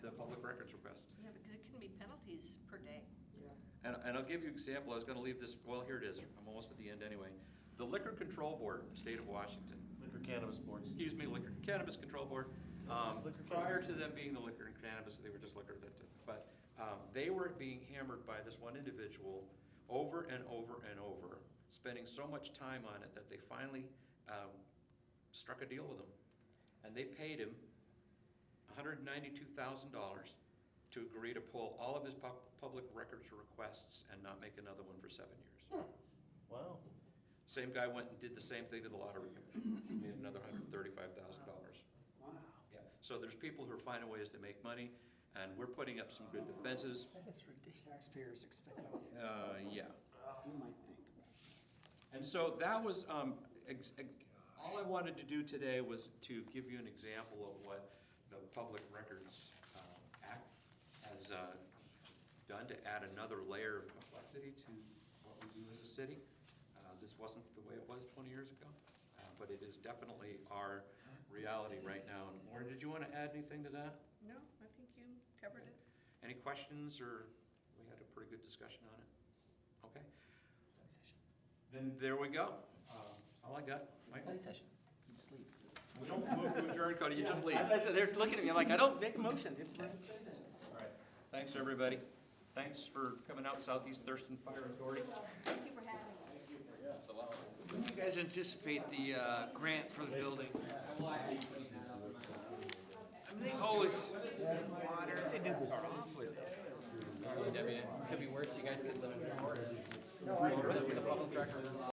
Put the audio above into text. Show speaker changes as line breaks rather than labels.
records request.
Yeah, because it can be penalties per day.
Yeah.
And, and I'll give you an example, I was gonna leave this, well, here it is, I'm almost at the end anyway. The Liquor Control Board, State of Washington,
Liquor cannabis boards.
excuse me, Liquor Cannabis Control Board.
No, just
Um,
liquor
prior
cannabis.
to them being the liquor and cannabis, they were just liquor, that- that- but, um, they were being hammered by this one individual over and over and over, spending so much time on it that they finally, um, struck a deal with him. And they paid him hundred and ninety-two thousand dollars to agree to pull all of his pub- public records requests and not make another one for seven years.
Hmm. Wow.
Same guy went and did the same thing to the lottery commission, made another hundred and thirty-five thousand dollars.
Wow.
Yeah, so there's people who are finding ways to make money, and we're putting up some good defenses.
That's ridiculous. Taxpayers' expense.
Uh, yeah.
You might think about it.
And so that was, um, ex- ex- all I wanted to do today was to give you an example of what the Public Records um, Act has uh, done to add another layer of complexity to what we do as a city. Uh, This wasn't the way it was 20 years ago, uh, but it is definitely our reality right now. And Lauren, did you want to add anything to that?
No, I think you covered it.
Any questions, or we had a pretty good discussion on it? Okay. Then there we go. Um, All I got. Michael?
Study session. You just leave.
We don't move to adjourn, Cody, you just leave.
As I said, they're looking at me, I'm like, I don't make a motion.
All right. Thanks, everybody. Thanks for coming out, Southeast Thurston Fire Authority.
Thank you for having us.
When do you guys anticipate the uh, grant for the building? I mean, they always,
Sorry, Debbie, it could be worse, you guys could live in Florida.